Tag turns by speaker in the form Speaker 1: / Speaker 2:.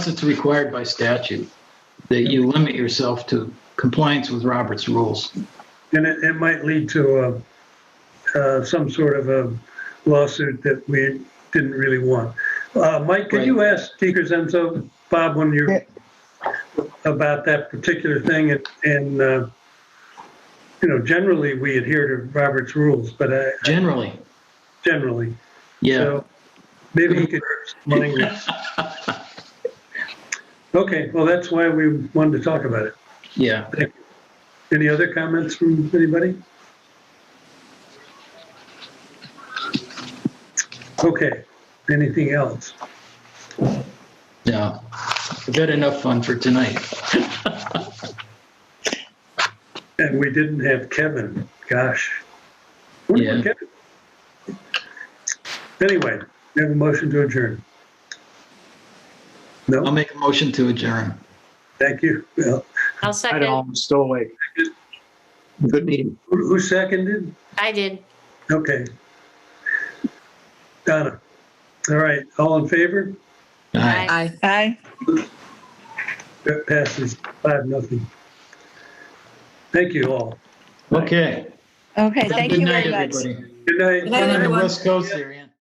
Speaker 1: it's required by statute, that you limit yourself to compliance with Robert's rules.
Speaker 2: And it, it might lead to uh, uh, some sort of a lawsuit that we didn't really want. Uh, Mike, could you ask Speaker Zenzo, Bob, when you're about that particular thing and, and, uh, you know, generally we adhere to Robert's rules, but I,
Speaker 1: Generally,
Speaker 2: generally.
Speaker 1: yeah.
Speaker 2: So maybe he could, language. Okay, well, that's why we wanted to talk about it.
Speaker 1: Yeah,
Speaker 2: Any other comments from anybody? Okay, anything else?
Speaker 1: no. I've had enough fun for tonight.
Speaker 2: And we didn't have Kevin, gosh. What
Speaker 1: Yeah.
Speaker 2: about Kevin? Anyway, we have a motion to adjourn.
Speaker 1: I'll
Speaker 2: No,
Speaker 1: make a motion to adjourn.
Speaker 2: thank you. Well,
Speaker 3: I'll
Speaker 4: I
Speaker 3: second.
Speaker 4: know, I'm still awake.
Speaker 1: Good meeting.
Speaker 2: Who who seconded?
Speaker 3: I did.
Speaker 2: Okay. Donna. All right, all in favor?
Speaker 1: Aye.
Speaker 5: Aye. Aye.
Speaker 2: That passes five, nothing. Thank you all.
Speaker 1: Okay.
Speaker 5: Okay, thank you
Speaker 1: Good night,
Speaker 5: very much.
Speaker 1: everybody.
Speaker 2: Good night.
Speaker 5: Good night,
Speaker 1: On the
Speaker 5: everyone.
Speaker 1: West Coast area.